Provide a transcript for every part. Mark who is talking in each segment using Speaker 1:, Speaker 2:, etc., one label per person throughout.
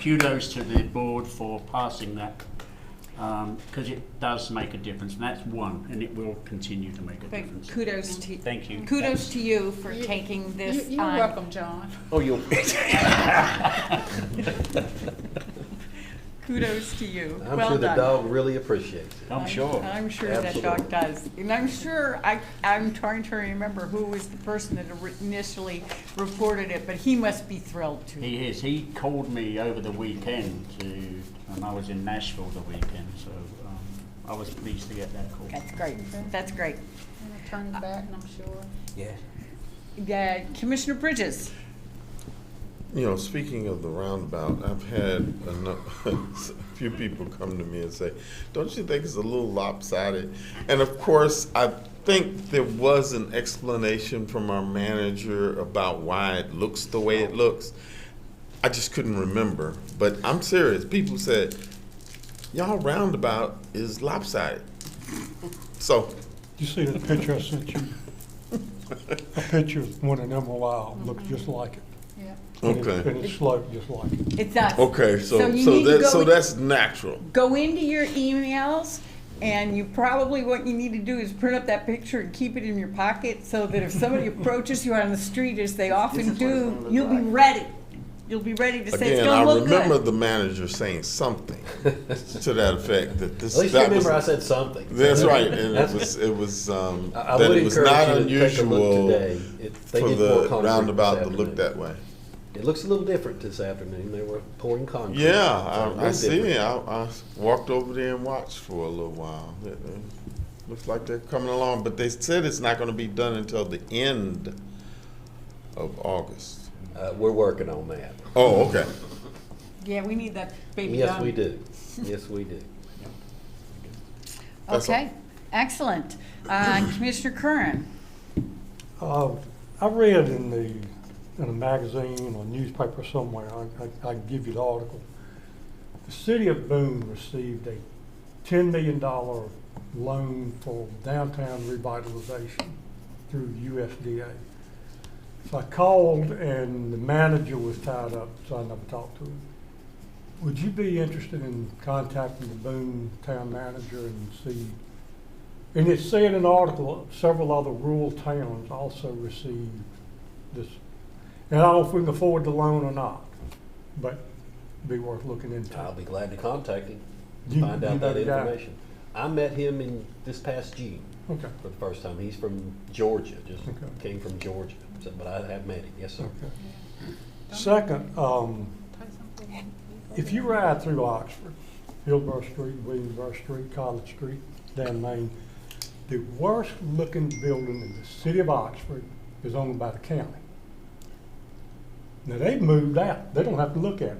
Speaker 1: kudos to the board for passing that, because it does make a difference, and that's one, and it will continue to make a
Speaker 2: But
Speaker 1: difference.
Speaker 2: kudos to,
Speaker 1: Thank you.
Speaker 2: kudos to you for
Speaker 3: You-
Speaker 2: taking
Speaker 3: You-
Speaker 2: this
Speaker 3: You're
Speaker 2: on.
Speaker 3: welcome, John.
Speaker 4: Oh, you'll,
Speaker 2: Kudos to you.
Speaker 4: I'm
Speaker 2: Well
Speaker 4: sure the
Speaker 2: done.
Speaker 4: dog really appreciates it.
Speaker 1: I'm sure.
Speaker 2: I'm sure that dog
Speaker 4: Absolutely.
Speaker 2: does. And I'm sure, I, I'm trying to remember who was the person that ori- initially reported it, but he must be thrilled too.
Speaker 1: He is. He called me over the weekend to, and I was in Nashville the weekend, so um, I was pleased to get that call.
Speaker 2: That's great, that's great.
Speaker 3: I'm gonna turn it back, and I'm sure.
Speaker 4: Yeah.
Speaker 2: Yeah, Commissioner Bridges?
Speaker 5: You know, speaking of the roundabout, I've had a nu- a few people come to me and say, don't you think it's a little lopsided? And of course, I think there was an explanation from our manager about why it looks the way it looks. I just couldn't remember, but I'm serious. People said, y'all roundabout is lopsided. So,
Speaker 6: You see the picture I sent you? A picture of one of them a while, looks just like it.
Speaker 3: Yeah.
Speaker 6: And it-
Speaker 5: Okay.
Speaker 6: And it's sloped just like it.
Speaker 2: It's us.
Speaker 5: okay,
Speaker 2: So
Speaker 5: so,
Speaker 2: you
Speaker 5: so
Speaker 2: need to
Speaker 5: that,
Speaker 2: go
Speaker 5: so
Speaker 2: with-
Speaker 5: that's natural.
Speaker 2: go into your emails and you probably what you need to do is print up that picture and keep it in your pocket so that if somebody approaches you on the street as they often
Speaker 1: is what it's
Speaker 2: do
Speaker 1: gonna look
Speaker 2: you'll be
Speaker 1: like.
Speaker 2: ready you'll be ready to say it's
Speaker 5: Again, I
Speaker 2: going to look
Speaker 5: remember
Speaker 2: good
Speaker 5: the manager saying something to that effect that this.
Speaker 4: At least you
Speaker 5: that was-
Speaker 4: remember I said something.
Speaker 5: That's right, and it
Speaker 4: That's-
Speaker 5: was it was um,
Speaker 4: I- I
Speaker 5: that
Speaker 4: would
Speaker 5: it was not
Speaker 4: encourage you to take a look
Speaker 5: unusual
Speaker 4: today. It- they
Speaker 5: for
Speaker 4: did pour
Speaker 5: the
Speaker 4: concrete this
Speaker 5: roundabout to look
Speaker 4: afternoon.
Speaker 5: that way.
Speaker 4: It looks a little different this afternoon. They were pouring concrete.
Speaker 5: Yeah,
Speaker 4: It's a little
Speaker 5: I, I see.
Speaker 4: different.
Speaker 5: I, I walked over there and watched for a little while. It, it looks like they're coming along, but they said it's not going to be done until the end of August.
Speaker 4: Uh, we're working on that.
Speaker 5: Oh, okay.
Speaker 2: yeah we need that baby
Speaker 4: Yes,
Speaker 2: done.
Speaker 4: we do. Yes, we do.
Speaker 5: That's all.
Speaker 2: okay excellent uh, commissioner curran
Speaker 6: Uh, I read in the, in a magazine or newspaper somewhere, I, I, I can give you the article. The city of Boone received a ten million dollar loan for downtown revitalization through USDA. So I called and the manager was tied up, so I never talked to him. Would you be interested in contacting the Boone town manager and see and it said in an article, several other rural towns also received this. And I don't know if we can afford the loan or not, but be worth looking into.
Speaker 4: I'll be glad to contact him,
Speaker 6: You-
Speaker 4: find
Speaker 6: you
Speaker 4: out
Speaker 6: know
Speaker 4: that
Speaker 6: the guy?
Speaker 4: information. I met him in this past June
Speaker 6: Okay,
Speaker 4: for the first time. He's from Georgia, just
Speaker 6: Okay.
Speaker 4: came from Georgia. So, but I have met him. Yes, sir.
Speaker 6: okay. Second, um, if you ride through Oxford, Hillsborough Street, Williamsburg Street, College Street, down Main, the worst looking building in the city of Oxford is owned by the county. Now, they've moved out, they don't have to look at it.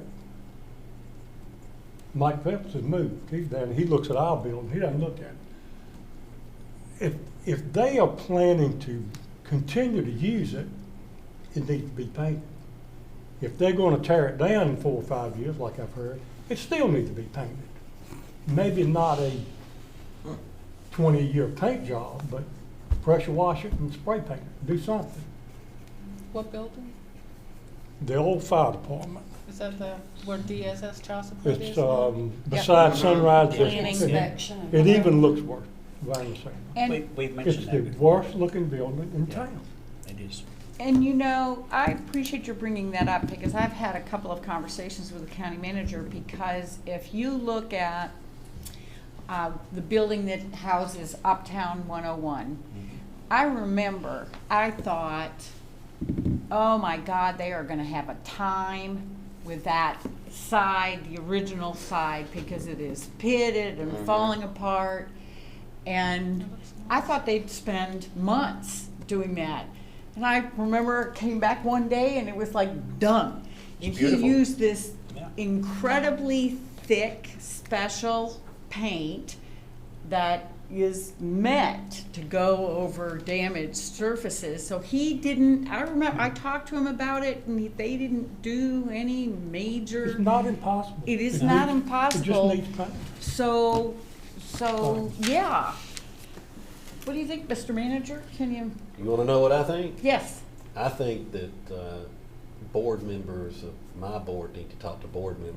Speaker 6: Mike Phelps has moved, he's down, he looks at our building, he doesn't look at it. If, if they are planning to continue to use it, it needs to be painted. If they're gonna tear it down in four or five years, like I've heard, it still needs to be painted. Maybe not a twenty-year paint job, but pressure wash it and spray paint it, do something.
Speaker 3: What building?
Speaker 6: The old fire department,
Speaker 3: Is that the, where DSS child support is?
Speaker 6: it's,
Speaker 3: now?
Speaker 6: um, beside Sunrise
Speaker 2: Planning
Speaker 6: District. It-
Speaker 2: section.
Speaker 6: It even looks worse, what I'm saying.
Speaker 1: We,
Speaker 2: and
Speaker 1: we've
Speaker 6: It's
Speaker 1: mentioned
Speaker 6: the
Speaker 1: that before.
Speaker 6: worst looking building in
Speaker 1: Yeah.
Speaker 6: town.
Speaker 1: It is.
Speaker 2: and you know i appreciate your bringing that up because i've had a couple of conversations with the county manager because if you look at uh, the building that houses uptown 101 I remember, I thought, oh my God, they are gonna have a time with that side, the original side, because it is pitted and falling apart. And I thought they'd spend months doing that. And I remember it came back one day and it was like done. And he
Speaker 1: beautiful.
Speaker 2: used this
Speaker 1: Yeah.
Speaker 2: incredibly thick, special paint that is meant to go over damaged surfaces. So he didn't, I remember, I talked to him about it and he- they didn't do any
Speaker 6: It's
Speaker 2: major.
Speaker 6: not impossible.
Speaker 2: It is not
Speaker 6: needs-
Speaker 2: impossible.
Speaker 6: It just needs paint.
Speaker 2: So, so, yeah. What do you think, Mr. Manager? Can you,
Speaker 4: You want to know what I think?
Speaker 2: yes,
Speaker 4: I think that uh, board members of my board need to talk to board members